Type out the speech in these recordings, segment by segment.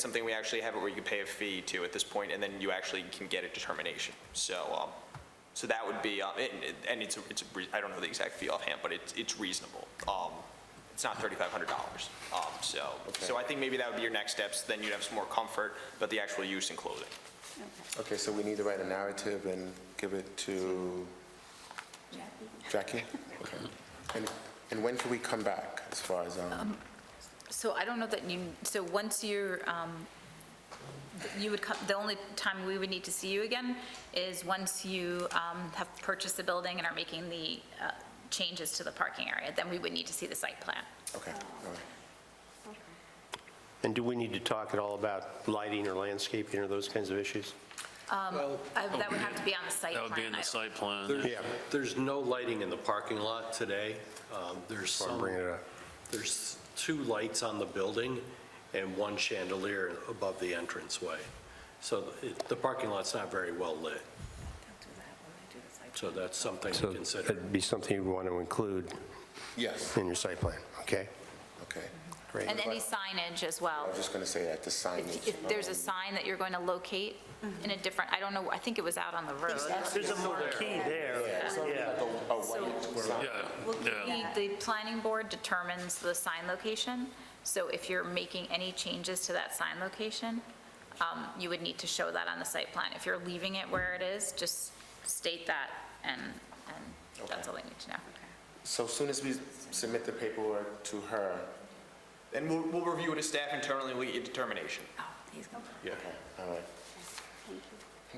something we actually have it where you can pay a fee to at this point, and then you actually can get a determination. So, um, so that would be, um, it- it- and it's, a- it's, a rea- I don't know the exact fee offhand, but it's, it's reasonable. Um, It's not $3,500, Um, so, so I think maybe that would be your next steps, then you'd have some more comfort about the actual use and clothing. Okay, so we need to write a narrative and give it to Jackie? Okay. And, and when can we come back as far as, um, So I don't know that you, so once you're, um, you would come, the only time we would need to see you again is once you um, have purchased the building and are making the uh, changes to the parking area, then we would need to see the site plan. okay, all right. And do we need to talk at all about lighting or landscaping or those kinds of issues? I- That would have to be on the site That plan. would be in I- the site plan. There's- There's no lighting in the parking lot today. Um, There's I'm some, bringing it up. there's two lights on the building and one chandelier above the entranceway. So it- the parking lot's not very well lit. So that's something to So consider. that'd be something you'd want to include Yes, in your site plan, okay? okay. Great. And any signage as well. I was just gonna say that, the If signage. if there's a sign that you're going to locate in a different, I don't know, I think it was out on the road. There's a marquee there. Like a- a white sign. Yeah, yeah. The, the planning board determines the sign location, so if you're making any changes to that sign location, um, you would need to show that on the site plan. If you're leaving it where it is, just state that, and, and that's all they need to know. So soon as we submit the paperwork to her, And we'll, we'll review it as staff internally, we get your determination. okay, all right.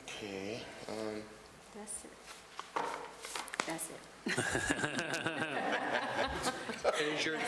Okay, um, That's it. That's it. And is your,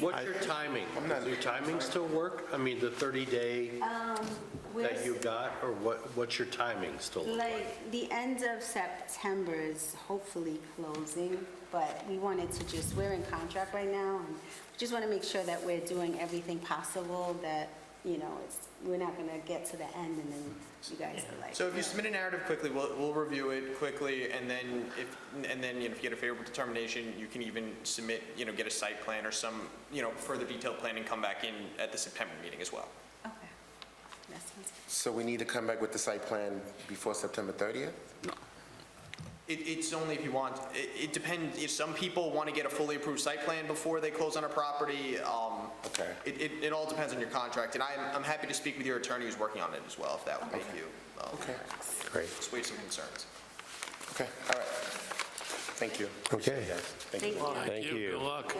what's your timing? Does your timing still work? I mean, the 30-day that you got, or what, what's your timing still look like? Like, the end of September is hopefully closing, but we wanted to just, we're in contract right now, and we just want to make sure that we're doing everything possible, that, you know, it's, we're not going to get to the end, and then you guys are like... So if you "No." submit a narrative quickly, we'll, we'll review it quickly, and then if, and then, you know, if you get a favorable determination, you can even submit, you know, get a site plan or some, you know, further detailed plan and come back in at the September meeting as well. Okay. That sounds so we need to come back with the site plan before September 30th? It, it's only if you want, it, it depends, if some people want to get a fully approved site plan before they close on a property, um. Okay. It, it, it all depends on your contract, and I'm, I'm happy to speak with your attorney who's working on it as well, if that would make you, um, Okay, Great, assuage some concerns. okay, all right. Thank you. okay, Thank you. thank you. Good luck.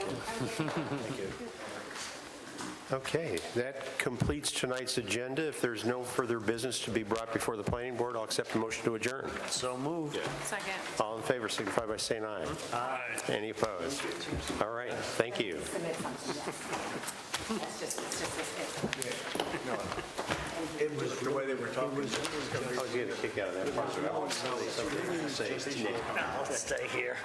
Okay, that completes tonight's agenda. If there's no further business to be brought before the planning board, I'll accept a motion to adjourn. So moved. Second. All in favor, signify by saying aye. Aye. Any opposed? All right, thank you. It was the way they were talking. I was getting a kick out of that part. but I wanted to say something. I'll stay here.